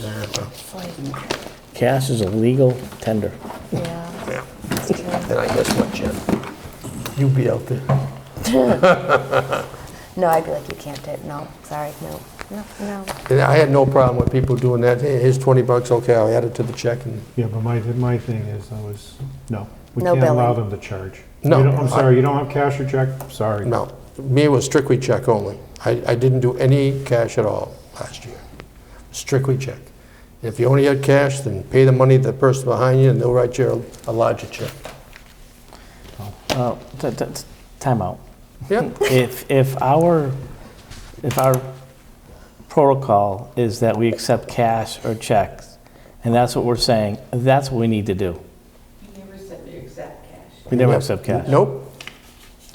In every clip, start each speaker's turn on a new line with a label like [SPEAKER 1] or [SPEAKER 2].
[SPEAKER 1] Yeah, so,
[SPEAKER 2] It's like,
[SPEAKER 3] Cash is a legal tender.
[SPEAKER 2] yeah,
[SPEAKER 1] yeah.
[SPEAKER 2] it's true.
[SPEAKER 4] And I guess what, Jim?
[SPEAKER 1] You be out there.
[SPEAKER 2] No, I'd be like, you can't do it. No, sorry, no, no, no.
[SPEAKER 4] And I had no problem with people doing that. Hey, Here's 20 bucks, okay, I'll add it to the check and,
[SPEAKER 5] Yeah, but my, my thing is, though, is, no, we
[SPEAKER 2] No
[SPEAKER 5] can't allow
[SPEAKER 2] billing.
[SPEAKER 5] them to charge.
[SPEAKER 4] No.
[SPEAKER 5] You don't- I'm sorry, you don't have cash or check, sorry.
[SPEAKER 4] no. Me, it was strictly check only. I, I didn't do any cash at all last year. Strictly check. If you only had cash, then pay the money to the person behind you and they'll write you a a larger check.
[SPEAKER 3] Uh, t- t- t- Timeout.
[SPEAKER 4] Yeah,
[SPEAKER 3] If, if our, if our protocol is that we accept cash or checks, and that's what we're saying, that's what we need to do.
[SPEAKER 6] You never said you accept cash.
[SPEAKER 3] We never accept cash.
[SPEAKER 4] Nope.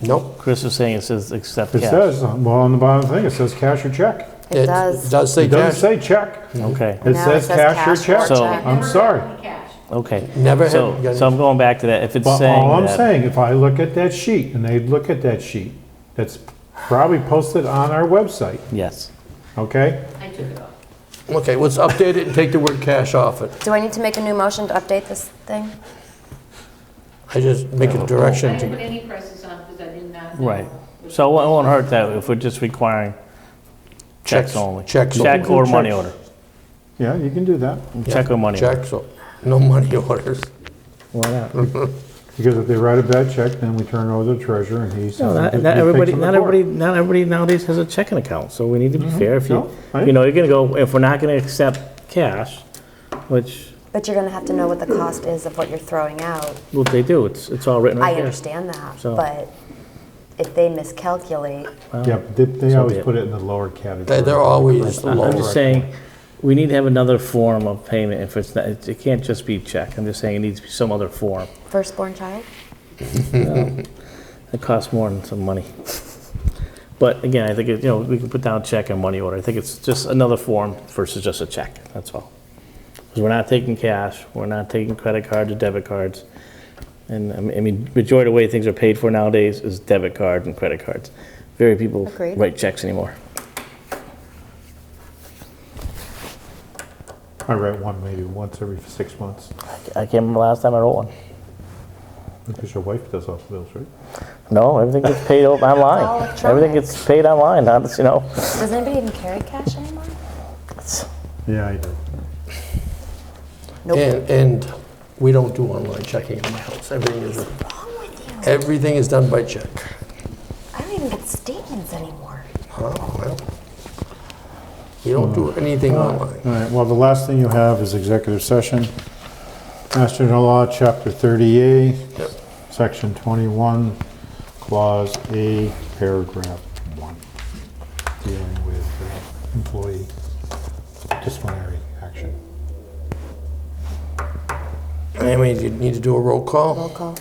[SPEAKER 4] Nope.
[SPEAKER 3] Chris is saying it says accept
[SPEAKER 5] It
[SPEAKER 3] cash.
[SPEAKER 5] says, uh, well, on the bottom thing, it says cash or check.
[SPEAKER 2] It does.
[SPEAKER 4] It does say
[SPEAKER 5] It doesn't
[SPEAKER 4] cash.
[SPEAKER 5] say check.
[SPEAKER 3] Okay,
[SPEAKER 5] It
[SPEAKER 2] No,
[SPEAKER 5] says cash or check.
[SPEAKER 3] So-
[SPEAKER 2] check.
[SPEAKER 5] I'm
[SPEAKER 6] Never
[SPEAKER 5] sorry.
[SPEAKER 6] got any Cash.
[SPEAKER 3] okay.
[SPEAKER 4] Never had-
[SPEAKER 3] So,
[SPEAKER 4] got-
[SPEAKER 3] so I'm going back to that. If it's
[SPEAKER 5] But
[SPEAKER 3] saying
[SPEAKER 5] all I'm
[SPEAKER 3] that-
[SPEAKER 5] saying, if I look at that sheet and they look at that sheet, that's probably posted on our website,
[SPEAKER 3] Yes.
[SPEAKER 5] okay?
[SPEAKER 6] I took it off.
[SPEAKER 4] Okay, let's update it and take the word cash off it.
[SPEAKER 2] Do I need to make a new motion to update this thing?
[SPEAKER 4] I just make a
[SPEAKER 6] I
[SPEAKER 4] direction
[SPEAKER 6] didn't put
[SPEAKER 4] to,
[SPEAKER 6] any prices on because I did not know.
[SPEAKER 3] Right. So it won't hurt that if we're just requiring checks
[SPEAKER 4] Checks-
[SPEAKER 3] only.
[SPEAKER 4] checks
[SPEAKER 3] Check
[SPEAKER 4] only.
[SPEAKER 3] or money
[SPEAKER 5] Checks.
[SPEAKER 3] order.
[SPEAKER 5] Yeah, you can do that,
[SPEAKER 3] Check or money order.
[SPEAKER 4] check, so no money orders.
[SPEAKER 3] Why not?
[SPEAKER 5] because if they write a bad check, then we turn it over to the treasurer and he
[SPEAKER 3] No,
[SPEAKER 5] sends it
[SPEAKER 3] not,
[SPEAKER 5] to-
[SPEAKER 3] not
[SPEAKER 5] he takes
[SPEAKER 3] everybody,
[SPEAKER 5] it to
[SPEAKER 3] not
[SPEAKER 5] court.
[SPEAKER 3] everybody, not everybody nowadays has a checking account, so we need to be fair. If you,
[SPEAKER 5] Mm-hmm. No, I-
[SPEAKER 3] you know, you're gonna go, if we're not gonna accept cash, which,
[SPEAKER 2] But you're gonna have to know what the cost is of what you're throwing out.
[SPEAKER 3] what they do, it's, it's all written
[SPEAKER 2] I
[SPEAKER 3] right there.
[SPEAKER 2] understand that,
[SPEAKER 3] So-
[SPEAKER 2] but if they miscalculate,
[SPEAKER 5] Yeah, but they, they
[SPEAKER 3] So be
[SPEAKER 5] always
[SPEAKER 3] it.
[SPEAKER 5] put it in the lower category.
[SPEAKER 4] They- They're always
[SPEAKER 3] I- I'm
[SPEAKER 4] lower.
[SPEAKER 3] just saying, we need to have another form of payment if it's not, it it can't just be check. I'm just saying it needs to be some other form.
[SPEAKER 2] firstborn child?
[SPEAKER 3] It costs more than some money. But again, I think, it- you know, we can put down check and money order. I think it's just another form versus just a check, that's all. Because we're not taking cash, we're not taking credit cards or debit cards. And I mean- I mean, majority of the way things are paid for nowadays is debit card and credit cards. Very people
[SPEAKER 2] Agreed.
[SPEAKER 3] write checks anymore.
[SPEAKER 5] I write one maybe once every six months,
[SPEAKER 3] I can't remember last time I wrote one.
[SPEAKER 5] because your wife does all the bills, right?
[SPEAKER 3] No, everything gets paid o-
[SPEAKER 2] all
[SPEAKER 3] online.
[SPEAKER 2] electronic.
[SPEAKER 3] Everything gets paid online, not, you know.
[SPEAKER 2] Does anybody even carry cash anymore?
[SPEAKER 5] Yeah, I do.
[SPEAKER 4] And, and we don't do online checking in my house. Everything is,
[SPEAKER 2] Wrong with you?
[SPEAKER 4] everything is done by check.
[SPEAKER 2] I don't even get statements anymore.
[SPEAKER 4] Huh? Well, We don't do
[SPEAKER 3] Hmm.
[SPEAKER 4] anything online.
[SPEAKER 5] All right, well, the last thing you have is executive session. Master General Law, Chapter 30A,
[SPEAKER 4] Yep.
[SPEAKER 5] Section 21, Clause A, Paragraph 1, dealing with uh, employee disciplinary action.
[SPEAKER 4] I mean, you need to do a roll
[SPEAKER 2] Roll
[SPEAKER 4] call.
[SPEAKER 2] call.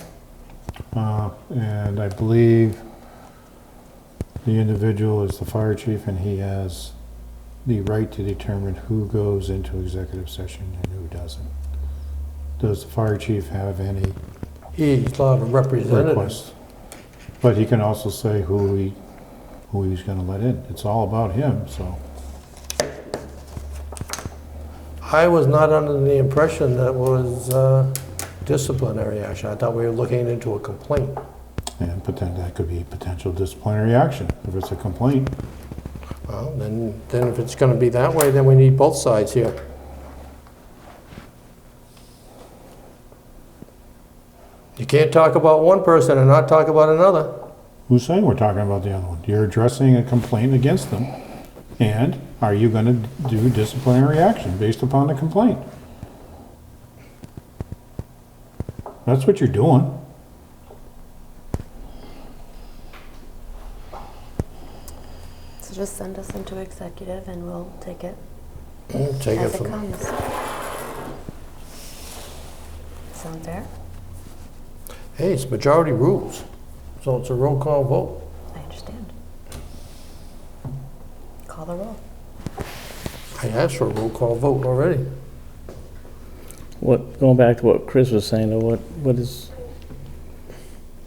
[SPEAKER 5] Uh, And I believe the individual is the fire chief, and he has the right to determine who goes into executive session and who doesn't. Does the fire chief have any
[SPEAKER 4] He's allowed a representative.
[SPEAKER 5] request. But he can also say who he, who he's gonna let in. It's all about him, so.
[SPEAKER 4] I was not under the impression that was uh, disciplinary action. I thought we were looking into a complaint.
[SPEAKER 5] And pretend that could be potential disciplinary action. If it's a complaint,
[SPEAKER 4] Well, then, then if it's going to be that way, then we need both sides here. You can't talk about one person and not talk about another.
[SPEAKER 5] who's saying we're talking about the other one? You're addressing a complaint against them. And are you gonna do disciplinary action based upon the complaint? That's what you're doing.
[SPEAKER 2] So just send us into executive and we'll take it
[SPEAKER 4] Mm, Take it
[SPEAKER 2] as it
[SPEAKER 4] from,
[SPEAKER 2] comes. Sound fair?
[SPEAKER 4] hey, it's majority rules, so it's a roll call vote.
[SPEAKER 2] I understand. Call the roll.
[SPEAKER 4] I asked for a roll call vote already.
[SPEAKER 3] What, going back to what Chris was saying, or what, what is,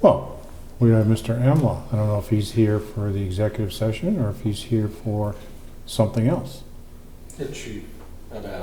[SPEAKER 5] Well, we have Mr. Amlaw. I don't know if he's here for the executive session or if he's here for something else.
[SPEAKER 7] It's cheap, about